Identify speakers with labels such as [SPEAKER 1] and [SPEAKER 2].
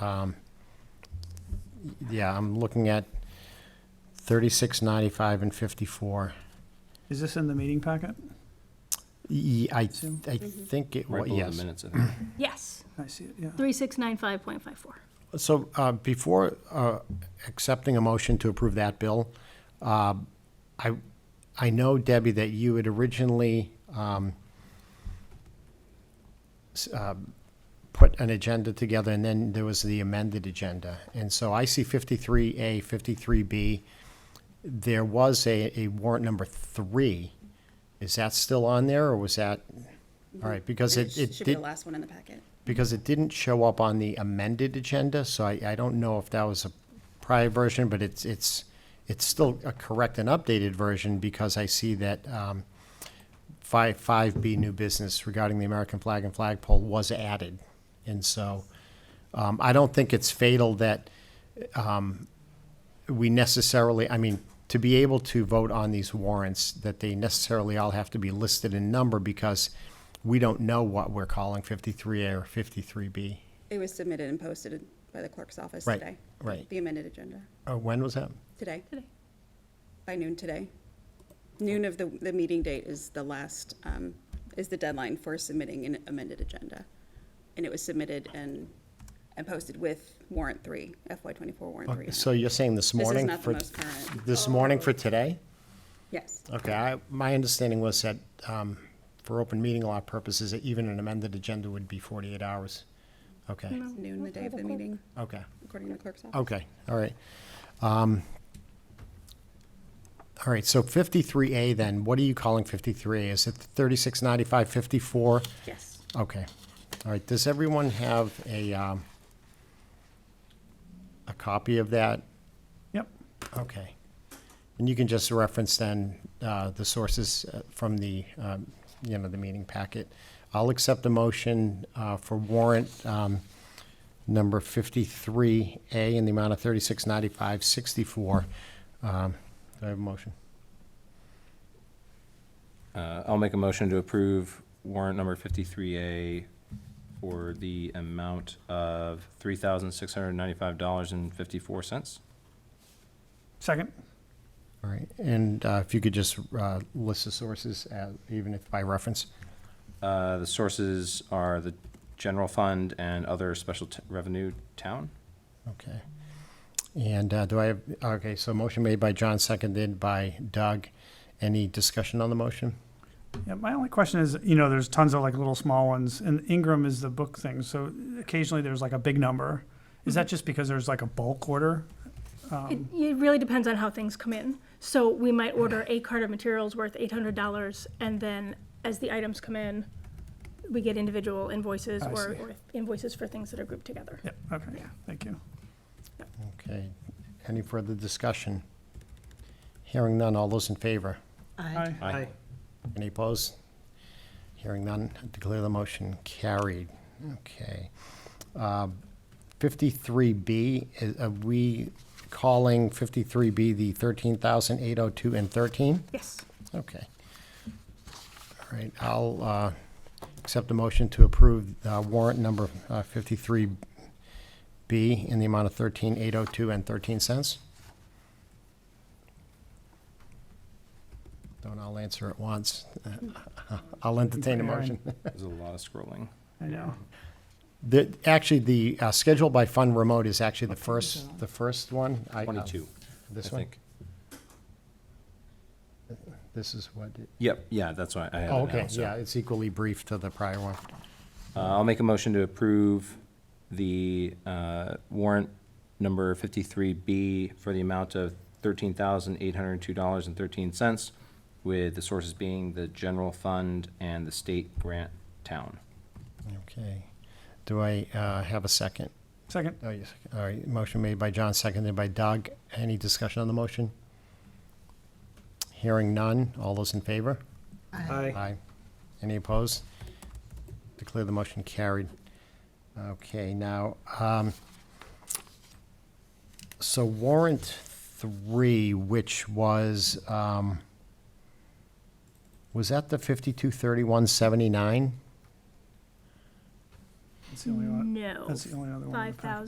[SPEAKER 1] um, yeah, I'm looking at thirty-six ninety-five and fifty-four.
[SPEAKER 2] Is this in the meeting packet?
[SPEAKER 1] Ye- I,
[SPEAKER 2] Two.
[SPEAKER 1] I think it,
[SPEAKER 3] Right
[SPEAKER 1] was
[SPEAKER 3] below the
[SPEAKER 1] yes.
[SPEAKER 3] minutes, I think.
[SPEAKER 4] Yes,
[SPEAKER 2] I see it, yeah.
[SPEAKER 4] 3695.54.
[SPEAKER 1] So uh, before uh, accepting a motion to approve that bill, uh, I, I know, Debbie, that you had originally um, s- um, put an agenda together, and then there was the amended agenda. And so I see 53A, 53B. There was a a warrant number three. Is that still on there, or was that, all right, because
[SPEAKER 5] And
[SPEAKER 1] it
[SPEAKER 5] sh-
[SPEAKER 1] it
[SPEAKER 5] Should be
[SPEAKER 1] did
[SPEAKER 5] the last one in the packet.
[SPEAKER 1] because it didn't show up on the amended agenda, so I, I don't know if that was a prior version, but it's, it's, it's still a correct and updated version because I see that, um, five, five B new business regarding the American flag and flagpole was added. And so, um, I don't think it's fatal that, um, we necessarily, I mean, to be able to vote on these warrants, that they necessarily all have to be listed in number because we don't know what we're calling fifty-three A or fifty-three B.
[SPEAKER 5] It was submitted and posted by the clerk's office
[SPEAKER 1] Right,
[SPEAKER 5] today.
[SPEAKER 1] right.
[SPEAKER 5] The amended agenda,
[SPEAKER 1] Uh, when was that?
[SPEAKER 5] today,
[SPEAKER 4] Today.
[SPEAKER 5] by noon today. Noon of the, the meeting date is the last, um, is the deadline for submitting an amended agenda. And it was submitted and, and posted with warrant three, FY twenty-four warrant three. on it.
[SPEAKER 1] So you're saying this
[SPEAKER 5] This is
[SPEAKER 1] morning
[SPEAKER 5] not the
[SPEAKER 1] for,
[SPEAKER 5] most Oh. current.
[SPEAKER 1] this morning for today?
[SPEAKER 5] Yes,
[SPEAKER 1] Okay, I, my understanding was that, um, for open meeting law purposes, that even an amended agenda would be forty-eight hours. Okay,
[SPEAKER 5] noon the day of the meeting,
[SPEAKER 1] okay,
[SPEAKER 5] according to the clerk's office.
[SPEAKER 1] okay, all right. Um, all right, so fifty-three A then, what are you calling fifty-three A? Is it thirty-six ninety-five fifty-four?
[SPEAKER 5] Yes.
[SPEAKER 1] Okay, all right, does everyone have a, um, a copy of that?
[SPEAKER 2] Yep,
[SPEAKER 1] Okay. And you can just reference then uh, the sources uh, from the, um, you know, the meeting packet. I'll accept a motion uh, for warrant um, number 53A in the amount of 369564. Um, Do I have a motion?
[SPEAKER 3] Uh, I'll make a motion to approve warrant number fifty-three A for the amount of three thousand six hundred ninety-five dollars and fifty-four cents.
[SPEAKER 2] second,
[SPEAKER 1] All right, and uh, if you could just uh, list the sources, uh, even if by reference.
[SPEAKER 3] Uh, the sources are the general fund and other special t- revenue town.
[SPEAKER 1] Okay. And uh, do I have, okay, so motion made by John, seconded by Doug. Any discussion on the motion?
[SPEAKER 2] yeah, my only question is, you know, there's tons of like little small ones, and Ingram is the book thing, so occasionally there's like a big number. Is that just because there's like a bulk order?
[SPEAKER 4] It,
[SPEAKER 2] Um,
[SPEAKER 4] it really depends on how things come in. So we might order a cart of materials worth $800, and then as the items come in, we get individual invoices
[SPEAKER 2] I
[SPEAKER 4] or,
[SPEAKER 2] see.
[SPEAKER 4] or invoices for things that are grouped together.
[SPEAKER 2] Yep, okay, thank you.
[SPEAKER 1] Okay, any further discussion? Hearing none, all those in favor?
[SPEAKER 2] Aye.
[SPEAKER 3] Aye.
[SPEAKER 1] Any opposed? Hearing none, I declare the motion carried. Okay. Um, Fifty-three B, are we calling fifty-three B the thirteen thousand eight oh two and thirteen?
[SPEAKER 4] Yes.
[SPEAKER 1] Okay. All right, I'll uh, accept a motion to approve uh, warrant number fifty-three B in the amount of thirteen eight oh two and thirteen cents. Don't all answer at once. Uh, I'll entertain a motion.
[SPEAKER 3] There's a lot of scrolling.
[SPEAKER 2] I know,
[SPEAKER 1] The, actually, the uh, schedule by fund remote is actually the first, the first one. I- uh,
[SPEAKER 3] Twenty-two, I
[SPEAKER 1] This one?
[SPEAKER 3] think.
[SPEAKER 1] This is what, it-
[SPEAKER 3] Yep, yeah, that's why I have
[SPEAKER 1] oh,
[SPEAKER 3] it
[SPEAKER 1] okay,
[SPEAKER 3] now, so.
[SPEAKER 1] yeah, it's equally brief to the prior one.
[SPEAKER 3] Uh, I'll make a motion to approve the uh, warrant number 53B for the amount of $13,802.13, with the sources being the general fund and the state grant town.
[SPEAKER 1] Okay. Do I uh, have a second?
[SPEAKER 2] second,
[SPEAKER 1] Oh, yes. All right, motion made by John, seconded by Doug. Any discussion on the motion? Hearing none. All those in favor? Aye. Aye. Any opposed? Declare the motion carried. Okay, now, um, so warrant three, which was, um, was that the fifty-two thirty-one seventy-nine?
[SPEAKER 2] that's the only one,
[SPEAKER 4] No.
[SPEAKER 2] that's the only other one. in the packet.
[SPEAKER 4] 5,000.